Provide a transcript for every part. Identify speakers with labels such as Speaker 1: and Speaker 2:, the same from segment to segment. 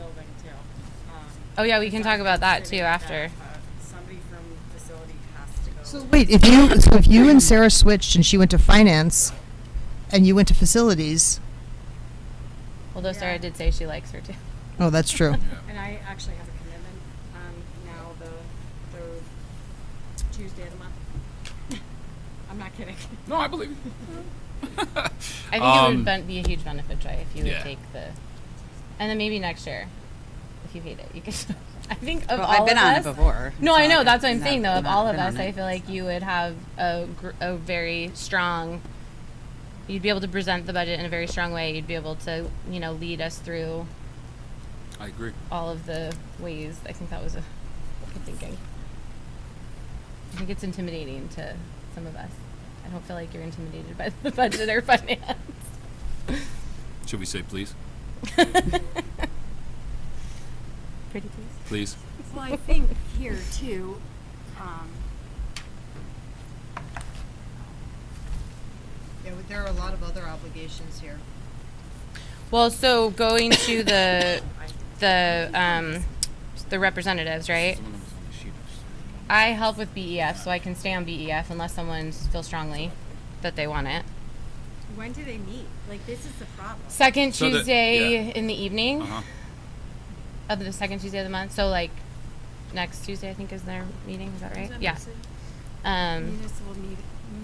Speaker 1: Um,
Speaker 2: Oh yeah, we can talk about that too after.
Speaker 1: uh, Somebody from facility has to go.
Speaker 3: So wait, if you so if you and Sarah switched and she went to finance, and you went to facilities.
Speaker 2: Although Sarah did say she likes her too.
Speaker 3: Oh, that's true.
Speaker 1: And I actually have a commitment, um, now the third Tuesday of the month. I'm not kidding.
Speaker 4: No, I believe you.
Speaker 2: I think it
Speaker 4: Um,
Speaker 2: would ben- be a huge benefit, Joy, if you would
Speaker 4: yeah.
Speaker 2: take the, and then maybe next year, if you hate it, you can. I think of
Speaker 5: Well,
Speaker 2: all
Speaker 5: I've been
Speaker 2: of
Speaker 5: on it
Speaker 2: us-
Speaker 5: before.
Speaker 2: No,
Speaker 5: It's
Speaker 2: I
Speaker 5: not
Speaker 2: know.
Speaker 5: like
Speaker 2: That's what
Speaker 5: I've
Speaker 2: I'm saying, though.
Speaker 5: not-
Speaker 2: Of all of
Speaker 5: been on
Speaker 2: us, I
Speaker 5: it.
Speaker 2: feel like you would have a, gr- a very strong. You'd be able to present the budget in a very strong way. You'd be able to, you know, lead us through
Speaker 4: I agree.
Speaker 2: all of the ways. I think that was a good thinking. I think it's intimidating to some of us. I don't feel like you're intimidated by the budget or finance.
Speaker 4: Should we say please?
Speaker 2: Pretty please.
Speaker 4: Please.
Speaker 6: Well, I think here too, um,
Speaker 3: Yeah, but there are a lot of other obligations here.
Speaker 2: Well, so going to the the um, the representatives, right? I help with BEF, so I can stay on BEF unless someone feels strongly that they want it.
Speaker 6: when do they meet? Like, this is the problem.
Speaker 2: Second
Speaker 4: So the-
Speaker 2: Tuesday
Speaker 4: yeah.
Speaker 2: in the evening
Speaker 4: Uh-huh.
Speaker 2: of the second Tuesday of the month. So like next Tuesday, I think is their meeting. Is that right? yeah. Um,
Speaker 1: Municipal, me-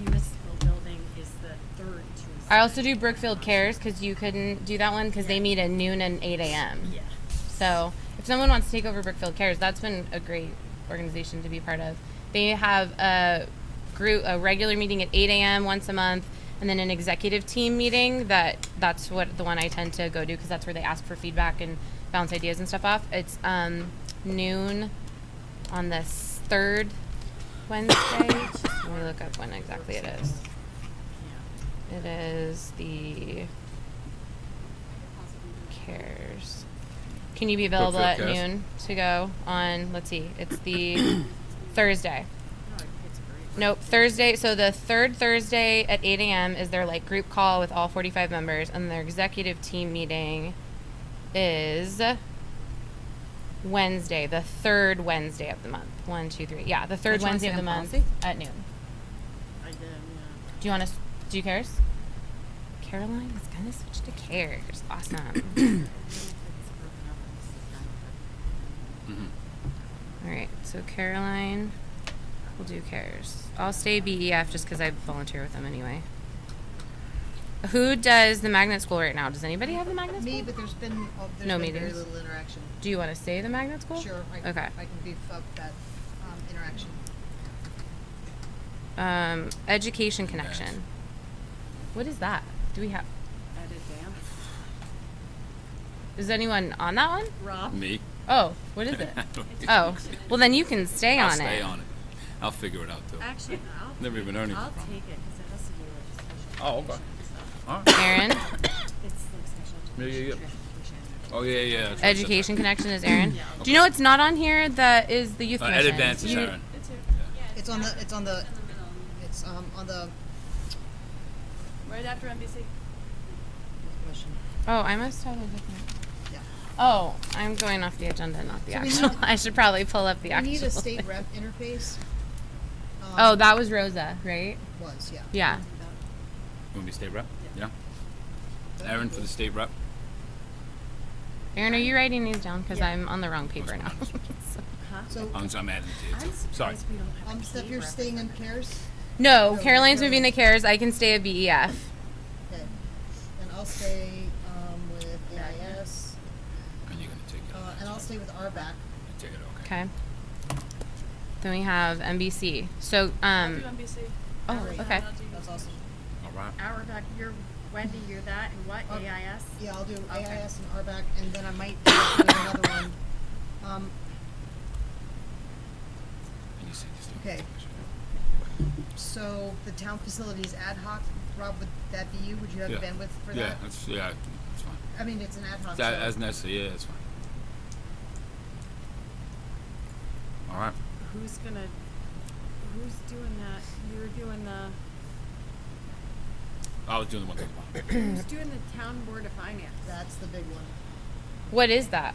Speaker 1: municipal building is the third Tuesday.
Speaker 2: I also do Brookfield Cares because you couldn't do that one because they meet at noon and 8 a.m.
Speaker 1: Yeah.
Speaker 2: So if someone wants to take over Brookfield Cares, that's been a great organization to be part of. They have a group, a regular meeting at 8 a.m. once a month, and then an executive team meeting. That that's what the one I tend to go to because that's where they ask for feedback and bounce ideas and stuff off. It's um, noon on the s- third Wednesday. Let me look up when exactly it is. It is the cares. Can you be available at
Speaker 4: Brookfield Cares.
Speaker 2: noon to go on? Let's see. It's the Thursday. Nope, Thursday. So the third Thursday at 8 a.m. is their like group call with all 45 members, and their executive team meeting is Wednesday, the third Wednesday of the month. One, two, three. Yeah, the third
Speaker 5: Don't
Speaker 2: Wednesday
Speaker 5: you wanna
Speaker 2: of
Speaker 5: stay
Speaker 2: the
Speaker 5: on
Speaker 2: month
Speaker 5: policy?
Speaker 2: at noon.
Speaker 1: I did, yeah.
Speaker 2: Do you want to? Do you cares? Caroline is gonna switch to cares. Awesome. All right. So Caroline will do cares. I'll stay BEF just because I volunteer with them anyway. Who does the magnet school right now? Does anybody have the magnet school?
Speaker 3: Me, but there's been uh, there's
Speaker 2: No
Speaker 3: been very
Speaker 2: meetings.
Speaker 3: little interaction.
Speaker 2: do you want to stay the magnet school?
Speaker 3: Sure, I, can-
Speaker 2: okay.
Speaker 3: I can beef up that um, interaction.
Speaker 2: Um, education connection. What is that? Do we have?
Speaker 1: At advance.
Speaker 2: Is anyone on that one?
Speaker 1: Rob,
Speaker 4: Me.
Speaker 2: Oh, what is it? Oh, well then you can stay
Speaker 4: I'll
Speaker 2: on
Speaker 4: stay
Speaker 2: it.
Speaker 4: on it. I'll figure it out though.
Speaker 1: actually, I'll.
Speaker 4: Never even heard anything
Speaker 1: I'll
Speaker 4: from
Speaker 1: take it, cause it has to do with special.
Speaker 4: Oh, okay.
Speaker 1: education stuff.
Speaker 4: All right.
Speaker 2: Aaron,
Speaker 1: It's like special.
Speaker 4: Yeah, yeah, yeah.
Speaker 1: education,
Speaker 4: Oh yeah, yeah. that's right, that's right.
Speaker 2: education connection is Aaron. Do you know what's not on here? That is the youth
Speaker 4: Uh,
Speaker 2: commission.
Speaker 4: Ed Advance is
Speaker 2: You-
Speaker 4: Aaron.
Speaker 3: It's on the it's on the it's um on the
Speaker 7: Right after NBC.
Speaker 3: question.
Speaker 2: Oh, I must have a different.
Speaker 3: Yeah.
Speaker 2: Oh, I'm going off the agenda, not the
Speaker 3: So we
Speaker 2: actual.
Speaker 3: need-
Speaker 2: I should probably pull up the
Speaker 3: We need
Speaker 2: actual.
Speaker 3: a state rep interface. Um,
Speaker 2: Oh, that was Rosa, right?
Speaker 3: was yeah.
Speaker 2: Yeah.
Speaker 4: Want me to state rep? Yeah. Aaron for the state rep.
Speaker 2: Aaron, are you writing these down? Because I'm on the wrong paper now.
Speaker 3: So
Speaker 4: I'm, I'm adding to
Speaker 1: I'm
Speaker 4: it. Sorry.
Speaker 1: surprised we don't have a
Speaker 3: um, Steph,
Speaker 1: key
Speaker 3: um, you're
Speaker 1: rep.
Speaker 3: staying in cares.
Speaker 2: no,
Speaker 3: Oh,
Speaker 2: Caroline's
Speaker 3: Caroline.
Speaker 2: moving to CARES. I can stay E a BEF.
Speaker 3: Okay. And I'll stay um, with AIS,
Speaker 4: And you're gonna take it.
Speaker 1: Oh.
Speaker 3: uh, and I'll stay with RBAC.
Speaker 4: Take it. Okay.
Speaker 2: Okay. Then we have NBC. So, um,
Speaker 7: I'll do NBC.
Speaker 2: oh, okay.
Speaker 7: I'll do-
Speaker 3: That's awesome.
Speaker 4: All right.
Speaker 1: Our back, you're Wendy, you're that, and what,
Speaker 3: Okay.
Speaker 1: AIS?
Speaker 3: Yeah, I'll do
Speaker 1: Okay.
Speaker 3: AIS and RBAC, and then I might do another one. Um,
Speaker 4: And you say just do it.
Speaker 3: Okay. so the town facilities ad hoc, Rob, would that be you? Would you have
Speaker 4: Yeah.
Speaker 3: bandwidth for
Speaker 4: Yeah,
Speaker 3: that?
Speaker 4: that's yeah, that's fine.
Speaker 3: I mean, it's an ad hoc.
Speaker 4: That,
Speaker 3: so-
Speaker 4: as necessary. Yeah, that's fine. All right.
Speaker 1: Who's gonna, who's doing that? You're doing the,
Speaker 4: I was doing the one thing.
Speaker 1: who's doing the town board of finance?
Speaker 3: That's the big one.
Speaker 2: What is that?